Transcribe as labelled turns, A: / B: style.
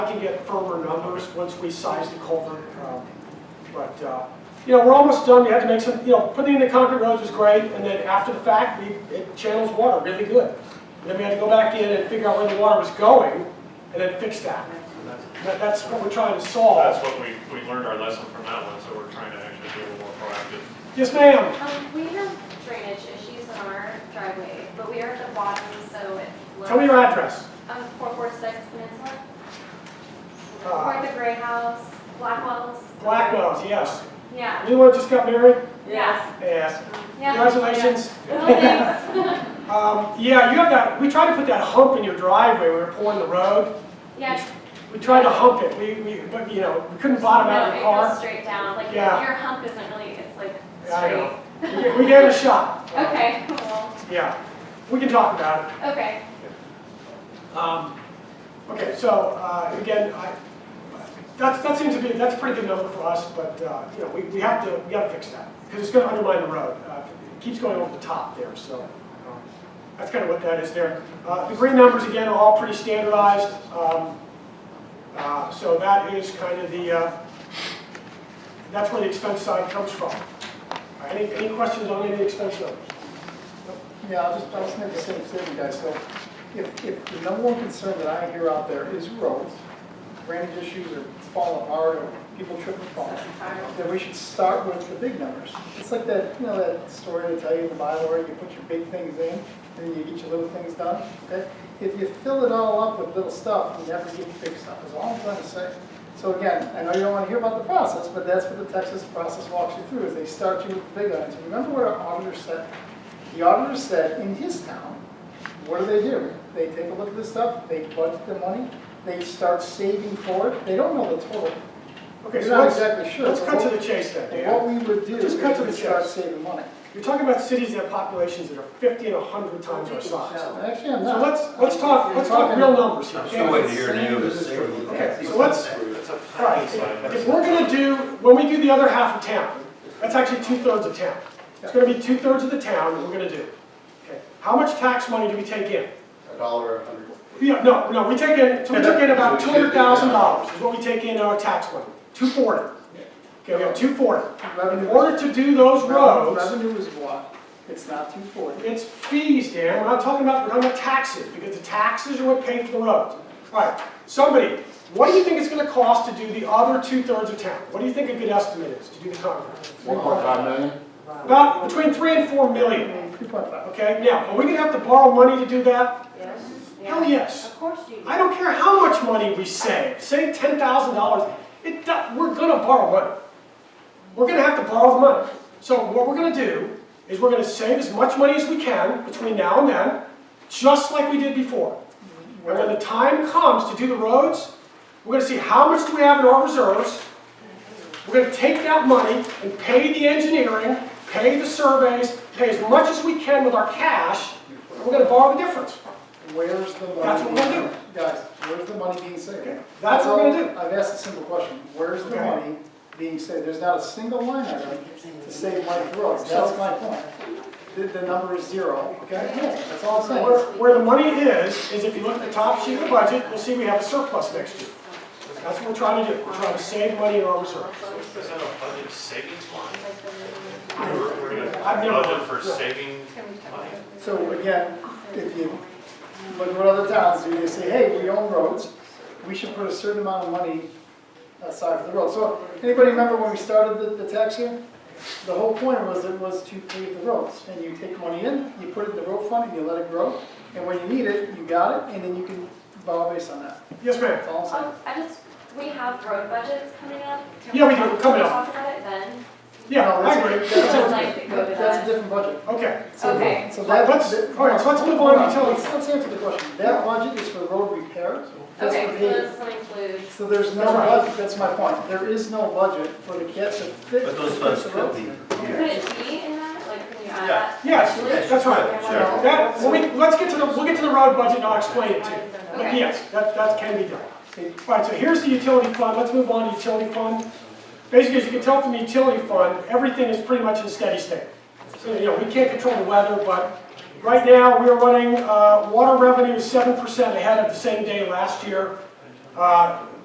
A: have to get firmer numbers once we size the culvert. um, But, uh, you know, we're almost done, we had to make some, you know, putting in the concrete roads was great, and then after the fact, we, it channels water really good. And Then we had to go back in and figure out where the water was going, and then fix that. That- That's what we're trying to solve.
B: That's what we, we learned our lesson from that one, so we're trying to actually be a little more proactive.
A: Yes, ma'am?
C: Um, we have drainage issues in our driveway, but we are at the bottom, so it flows.
A: Tell me your address.
C: Um, four four six Peninsula,
A: Uh, Ah.
C: toward the gray house, Blackwell's.
A: Blackwell's, yes.
C: Yeah,
A: Anyone that just got married?
C: yeah,
A: Yes.
C: yeah.
A: Congratulations.
C: Well, thanks.
A: Um, yeah, you have that, we tried to put that hump in your driveway, when we were pouring the road.
C: Yeah.
A: We tried to hump it, we, we, but, you know, we couldn't bottom out
C: No,
A: your
C: It goes
A: car.
C: straight down, like your
A: Yeah.
C: your hump isn't really, it's like
A: Yeah, I know.
C: straight.
A: We- We gave it a shot.
C: Okay, well,
A: Yeah, we can talk about
C: okay,
A: it. Um, okay, so, uh, again, I, that's, that seems to be, that's a pretty good number for us, but, uh, you know, we, we have to, we gotta fix that, because it's gonna undermine the road. Uh, It keeps going over the top there, so, um, that's kind of what that is there. Uh, the green numbers, again, are all pretty standardized, um, uh, so that is kind of the, uh, that's where the expense side comes from. Uh, Any, any questions on any of the expense numbers?
D: Yeah, I'll just, I'll just make the same statement, guys. So if, if the number one concern that I hear out there is roads, drainage issues are falling apart or people tripping and falling, then we should start with the big numbers. It's like that, you know, that story they tell you in the Bible where you put your big things in and then you get your little things done, okay? If you fill it all up with little stuff, you never get big stuff, is all I'm trying to say. So again, I know you don't want to hear about the process, but that's what the Texas process walks you through, is they start you with the big items. Remember what our auditor said? The auditor said, in his town, what do they do? They take a look at this stuff, they budget the money, they start saving for it, they don't know the total.
A: Okay, so
D: You're not
A: let's-
D: exactly sure,
A: Let's
D: but
A: cut to
D: what-
A: the chase then,
D: And
A: Dan.
D: What we would do is
A: Just cut to
D: we'd
A: the
D: start
A: chase.
D: saving money.
A: You're talking about cities that have populations that are 50 and 100 times our size. So
D: Actually, I'm not.
A: let's, let's talk, let's talk real numbers here.
E: I'm
A: okay?
E: still waiting to hear new of the state.
A: Okay, so let's, all right,
B: Side.
A: if we're gonna do, when we do the other half of town, that's actually two-thirds of town. It's gonna be two-thirds of the town that we're gonna do. Okay. How much tax money do we take in?
F: A dollar, a hundred.
A: Yeah, no, no, we take in, so we took in about two hundred thousand dollars is what we take in our tax money, two forty. Okay, we have two forty. In
D: Revenue-
A: order to do those roads,
D: Revenue is what? It's not two forty.
A: It's fees, Dan, we're not talking about, we're talking about taxes, because the taxes are what pay for the roads. All right, somebody, what do you think it's gonna cost to do the other two-thirds of town? What do you think a good estimate is to do the concrete?
F: One point five million?
A: About between three and four million,
D: Three point five.
A: okay? Now, are we gonna have to borrow money to do that?
C: Yes.
A: Hell, yes.
C: Of course you do.
A: I don't care how much money we save, save ten thousand dollars, it, do- we're gonna borrow money. We're gonna have to borrow the money. So what we're gonna do is we're gonna save as much money as we can between now and then, just like we did before. And when the time comes to do the roads, we're gonna see how much do we have in our reserves. We're gonna take that money and pay the engineering, pay the surveys, pay as much as we can with our cash, and we're gonna borrow the difference.
D: Where's the money?
A: That's what we're
D: being-
A: doing.
D: Guys, where's the money being saved?
A: Okay, that's what we're gonna do.
D: I've asked a simple question, where's the
A: Okay.
D: money being saved? There's not a single line item to save money for roads, that's my point. The, the number is zero, okay? That's all I'm saying.
A: Where, where the money is, is if you look at the top sheet of the budget, you'll see we have a surplus next year. That's what we're trying to do, we're trying to save money in our reserves.
B: Is that a budget savings line? We're, we're
A: I've
B: gonna
A: never-
B: budget for saving money?
D: So again, if you look at what other towns do, they say, hey, we own roads, we should put a certain amount of money aside for the road. So anybody remember when we started the, the tax year? The whole point was it was to pave the roads, and you take money in, you put it in the road fund, and you let it grow, and when you need it, you got it, and then you can borrow based on that.
A: Yes, ma'am?
D: That's all I'm saying.
C: Oh, I just, we have road budgets coming up. Can
A: Yeah, we do. Coming
C: can we
A: up.
C: Talk about it then.
A: Yeah,
D: No,
A: I
D: that's-
A: agree.
D: that's-
C: I'd like to go to
D: That's
C: that.
D: a different budget.
A: Okay,
D: So-
C: Okay.
D: So that,
A: let's,
D: that-
A: all right, so let's move on to
D: Let's,
A: utilities.
D: let's answer the question. That budget is for road repair, that's
C: Okay,
D: for
C: so
D: paving.
C: this will include,
D: So there's no
A: That's right.
D: budget, that's my point, there is no budget for the kids to fix.
E: But those funds could be.
C: could it be in that? Like, can you add
E: Yeah.
C: that?
A: Yes, that's right.
E: Sure.
A: That, well, we, let's get to the, we'll get to the road budget and I'll explain it to you. But
C: Okay.
A: yes, that, that can be done. All right, so here's the utility fund, let's move on to utility fund. Basically, as you can tell from the utility fund, everything is pretty much in steady state. So, you know, we can't control the weather, but right now, we are running, uh, water revenue is seven percent ahead of the same day last year. Uh,